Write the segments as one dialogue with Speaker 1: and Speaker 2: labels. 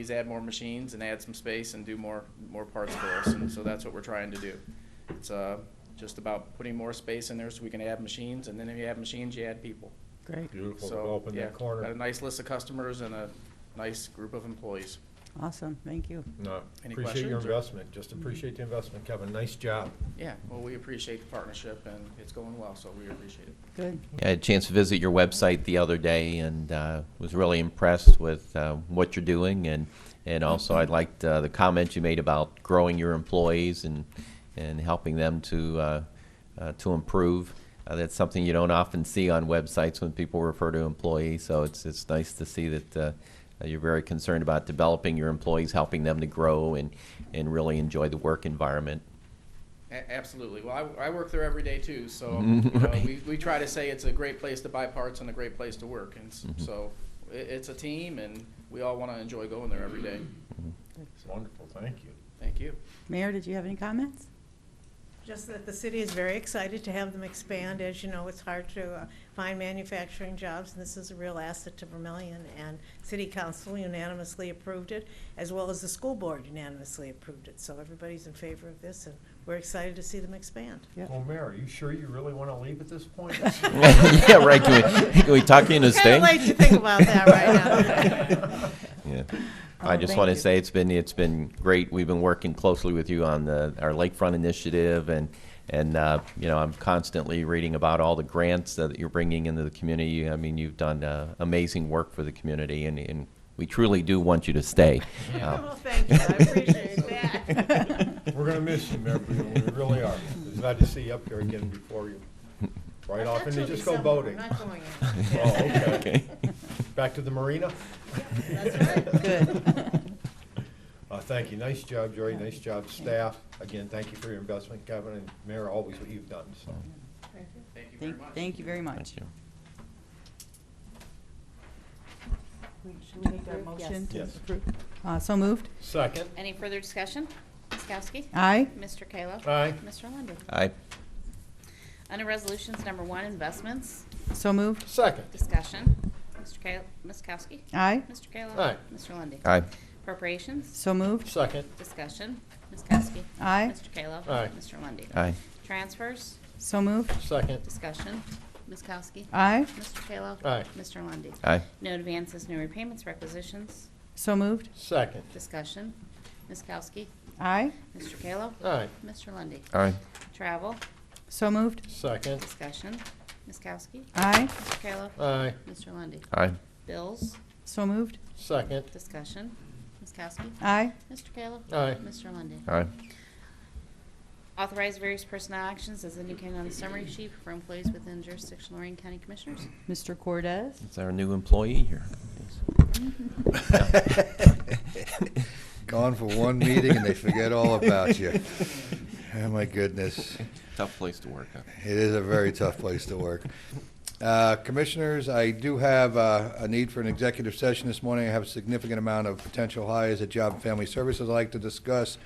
Speaker 1: please add more machines and add some space and do more, more parts for us. And so that's what we're trying to do. It's uh, just about putting more space in there so we can add machines, and then if you add machines, you add people.
Speaker 2: Great,
Speaker 3: Beautiful,
Speaker 1: So,
Speaker 3: developing
Speaker 1: yeah,
Speaker 3: that corner.
Speaker 1: Got a nice list of customers and a nice group of employees.
Speaker 2: awesome, thank you.
Speaker 3: No,
Speaker 1: Any
Speaker 3: appreciate your
Speaker 1: questions or-
Speaker 3: investment, just appreciate the investment, Kevin, nice job.
Speaker 1: Yeah, well, we appreciate the partnership, and it's going well, so we appreciate it.
Speaker 2: Good,
Speaker 4: I had a chance to visit your website the other day and uh, was really impressed with uh, what you're doing and and also I liked uh, the comment you made about growing your employees and and helping them to uh, uh, to improve. Uh, that's something you don't often see on websites when people refer to employees. So it's it's nice to see that. Uh, you're very concerned about developing your employees, helping them to grow and, and really enjoy the work environment.
Speaker 1: A- Absolutely. Well, I, I work there every day too, so
Speaker 4: Mhm,
Speaker 1: you know,
Speaker 4: right.
Speaker 1: we, we try to say it's a great place to buy parts and a great place to work, and s- so i it's a team, and we all want to enjoy going there every day.
Speaker 4: Mm-hmm.
Speaker 3: Wonderful, thank you.
Speaker 1: Thank you.
Speaker 2: Mayor, did you have any comments?
Speaker 5: Just that the city is very excited to have them expand. As you know, it's hard to uh, find manufacturing jobs, and this is a real asset to Vermillion. And city council unanimously approved it, as well as the school board unanimously approved it. So everybody's in favor of this, and we're excited to see them expand.
Speaker 2: Yep.
Speaker 3: Well, Mayor, are you sure you really want to leave at this point?
Speaker 4: yeah, right. Can we, can we talk you into staying?
Speaker 5: Kind of late to think about that right now.
Speaker 4: Yeah.
Speaker 2: Oh,
Speaker 4: I just
Speaker 2: thank
Speaker 4: want
Speaker 2: you.
Speaker 4: to say it's been, it's been great. We've been working closely with you on the, our lakefront initiative and, and, uh, you know, I'm constantly reading about all the grants that you're bringing into the community. I mean, you've done, uh, amazing work for the community and, and we truly do want you to stay. Um,
Speaker 5: Well, thank you. I appreciate that.
Speaker 3: We're going to miss you, Mayor Breeden, we really are. It's glad to see you up here again before you. Right off, and then just go boating.
Speaker 5: I'm not going
Speaker 3: Oh, okay.
Speaker 4: Okay.
Speaker 3: Back to the marina?
Speaker 5: That's right.
Speaker 2: Good.
Speaker 3: Uh, thank you, nice job, Jerry, nice job, staff. Again, thank you for your investment, Kevin, and Mayor, always what you've done, so.
Speaker 5: Thank you.
Speaker 1: Thank you very
Speaker 2: Thank,
Speaker 1: much.
Speaker 2: thank you very much.
Speaker 4: Thank you.
Speaker 2: Should we make our motion
Speaker 3: to Yes.
Speaker 2: approve? Uh, so moved,
Speaker 3: Second,
Speaker 6: Any further discussion? Ms. Kowski?
Speaker 2: aye,
Speaker 6: Mr. Kayla?
Speaker 3: aye,
Speaker 6: Mr. Lundey?
Speaker 4: I,
Speaker 6: Under Resolutions Number One, Investments,
Speaker 2: so moved,
Speaker 3: second,
Speaker 6: Discussion. Mr. Kayla, Ms. Kowski?
Speaker 2: aye,
Speaker 6: Mr. Kayla?
Speaker 3: Aye.
Speaker 6: Mr. Lundey?
Speaker 4: I,
Speaker 6: Appropriations,
Speaker 2: so moved,
Speaker 3: second,
Speaker 6: Discussion. Ms. Kowski?
Speaker 2: aye,
Speaker 6: Mr. Kayla?
Speaker 3: Aye.
Speaker 6: Mr. Lundey?
Speaker 4: I,
Speaker 6: Transfers,
Speaker 2: so moved,
Speaker 3: second,
Speaker 6: Discussion. Ms. Kowski?
Speaker 2: aye,
Speaker 6: Mr. Kayla?
Speaker 3: Aye.
Speaker 6: Mr. Lundey?
Speaker 4: I,
Speaker 6: No advances, no repayments, requisitions,
Speaker 2: so moved,
Speaker 3: second,
Speaker 6: Discussion. Ms. Kowski?
Speaker 2: aye,
Speaker 6: Mr. Kayla?
Speaker 3: aye,
Speaker 6: Mr. Lundey?
Speaker 4: I,
Speaker 6: Travel,
Speaker 2: so moved,
Speaker 3: second,
Speaker 6: Discussion. Ms. Kowski?
Speaker 2: aye,
Speaker 6: Mr. Kayla?
Speaker 3: aye,
Speaker 6: Mr. Lundey?
Speaker 4: I,
Speaker 6: Bills,
Speaker 2: so moved,
Speaker 3: second,
Speaker 6: discussion. Ms. Kowski?
Speaker 2: aye,
Speaker 6: Mr. Kayla?
Speaker 3: aye,
Speaker 6: Mr. Lundey?
Speaker 4: I,
Speaker 6: Authorize various personnel actions as indicated on the summary sheet for employees within jurisdiction Lorraine County Commissioners.
Speaker 2: Mr. Cordez,
Speaker 4: it's our new employee here.
Speaker 7: Gone for one meeting and they forget all about you. Oh, my goodness.
Speaker 4: Tough place to work, huh?
Speaker 7: It is a very tough place to work. Uh, Commissioners, I do have uh, a need for an executive session this morning. I have a significant amount of potential hires at Job and Family Services I'd like to discuss.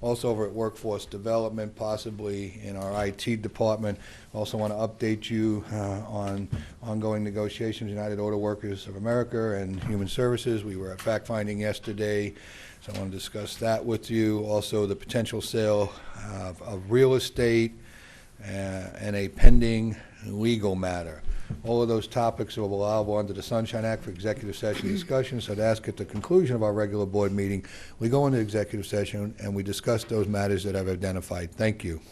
Speaker 7: Also over at Workforce Development, possibly in our IT department. Also want to update you uh, on ongoing negotiations, United Auto Workers of America and Human Services. We were at fact-finding yesterday, so I want to discuss that with you. Also, the potential sale of of real estate uh, and a pending legal matter. All of those topics are allowable under the Sunshine Act for executive session discussion, so to ask at the conclusion of our regular board meeting, we go into executive session and we discuss those matters that I've identified. Thank you.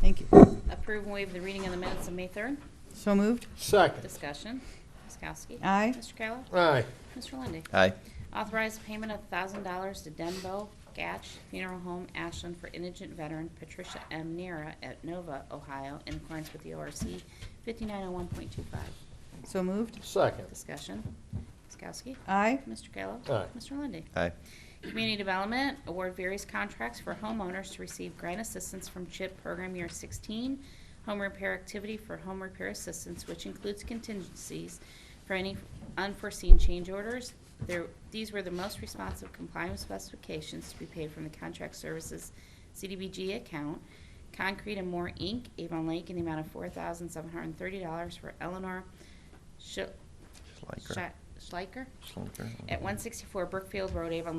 Speaker 2: thank you,
Speaker 6: Approve and waive the reading of the minutes of May 3rd.
Speaker 2: so moved,
Speaker 3: second,
Speaker 6: Discussion. Ms. Kowski?
Speaker 2: Aye.
Speaker 6: Mr. Kayla?
Speaker 3: aye,
Speaker 6: Mr. Lundey?
Speaker 4: I,
Speaker 6: Authorize payment of $1,000 to Denbo Gatch Funeral Home Ashland for indigent veteran Patricia M. Nera at Nova, Ohio, in accordance with the ORC 5901.25.
Speaker 2: so moved,
Speaker 3: second,
Speaker 6: Discussion. Ms. Kowski?
Speaker 2: aye,
Speaker 6: Mr. Kayla?
Speaker 3: Aye.
Speaker 6: Mr. Lundey?
Speaker 4: I,
Speaker 6: Community Development, award various contracts for homeowners to receive grant assistance from CHIP Program Year 16, home repair activity for home repair assistance, which includes contingencies for any unforeseen change orders. There- These were the most responsive complying with specifications to be paid from the Contract Services CDBG account. Concrete and More, Inc., Avon Lake, in the amount of $4,730 for Eleanor Sch-
Speaker 4: Schleicher.
Speaker 6: Schleicher
Speaker 4: Schleicher.
Speaker 6: at 164 Brookfield Road, Avon